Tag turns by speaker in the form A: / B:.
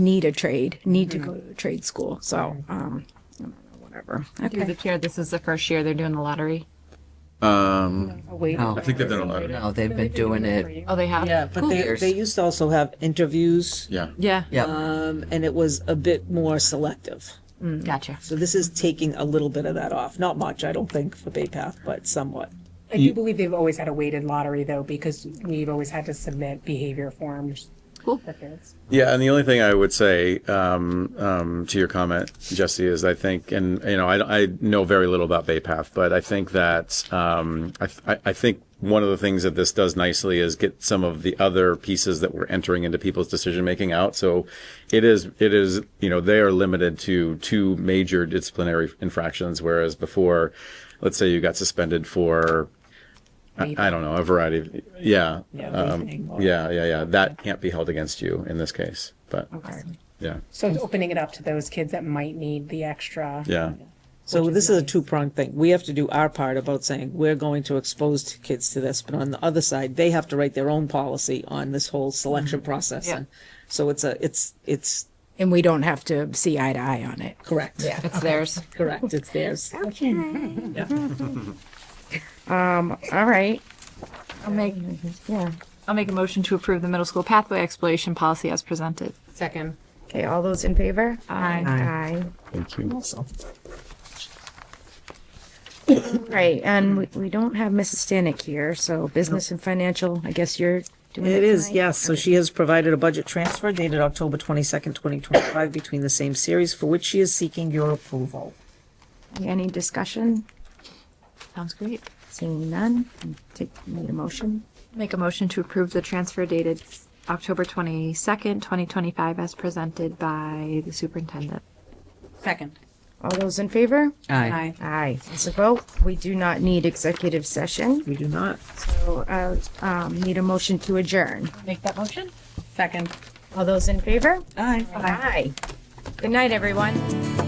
A: need a trade, need to go to a trade school. So, um, I don't know, whatever.
B: Through the
A: Okay.
B: chair, this is the first year they're doing the lottery.
C: Um,
D: No,
C: I think they've done a lot of
D: Oh. no, they've been doing it.
B: Oh, they have?
E: Yeah, but they,
D: cares?
E: they used to also have interviews,
C: Yeah.
B: Yeah.
D: Yeah,
E: um, and it was a bit more selective.
B: Gotcha.
E: So this is taking a little bit of that off. Not much, I don't think, for Bay Path, but somewhat.
F: I do believe they've always had a weighted lottery though, because we've always had to submit behavior forms.
B: Cool.
F: that parents-
C: Yeah, and the only thing I would say um, um, to your comment, Jesse, is I think, and you know, I, I know very little about Bay Path, but I think that um, I, th- I- I think one of the things that this does nicely is get some of the other pieces that we're entering into people's decision making out. So it is it is you know they are limited to two major disciplinary infractions, whereas before, let's say you got suspended for. I, I don't know a variety of yeah um, yeah yeah yeah that can't be held against you in this case but yeah
F: So it's opening it up to those kids that might need the extra.
C: yeah
E: So this is a two-pronged thing. We have to do our part about saying we're going to expose t- kids to this, but on the other side, they have to write their own policy on this whole selection process.
B: Yeah.
E: And So it's a, it's, it's
A: And we don't have to see eye to eye on it.
E: correct. Yeah.
B: It's theirs.
E: Correct, it's theirs.
A: All right.
B: I'll make, yeah. I'll make a motion to approve the middle school pathway exploration policy as presented.
F: Second.
A: Okay. All those in favor? Aye. Aye.
C: thank you
A: Right. And we, we don't have Mrs. Stanek here. So business and financial, I guess you're doing it.
E: It is,
A: tonight?
E: yes. So she has provided a budget transfer dated October twenty-second, twenty twenty-five between the same series for which she is seeking your approval.
A: Any discussion?
B: Sounds great.
A: Seeing none, take, need a motion.
B: Make a motion to approve the transfer dated October 22nd, 2025 as presented by the superintendent.
G: Second.
A: All those in favor?
D: aye.
A: Aye. It's a vote. We do not need executive session.
E: We do not.
A: So, uh, um, need a motion to adjourn.
B: Make that motion?
G: Second.
A: All those in favor?
G: Aye.
A: Aye. Good night, everyone.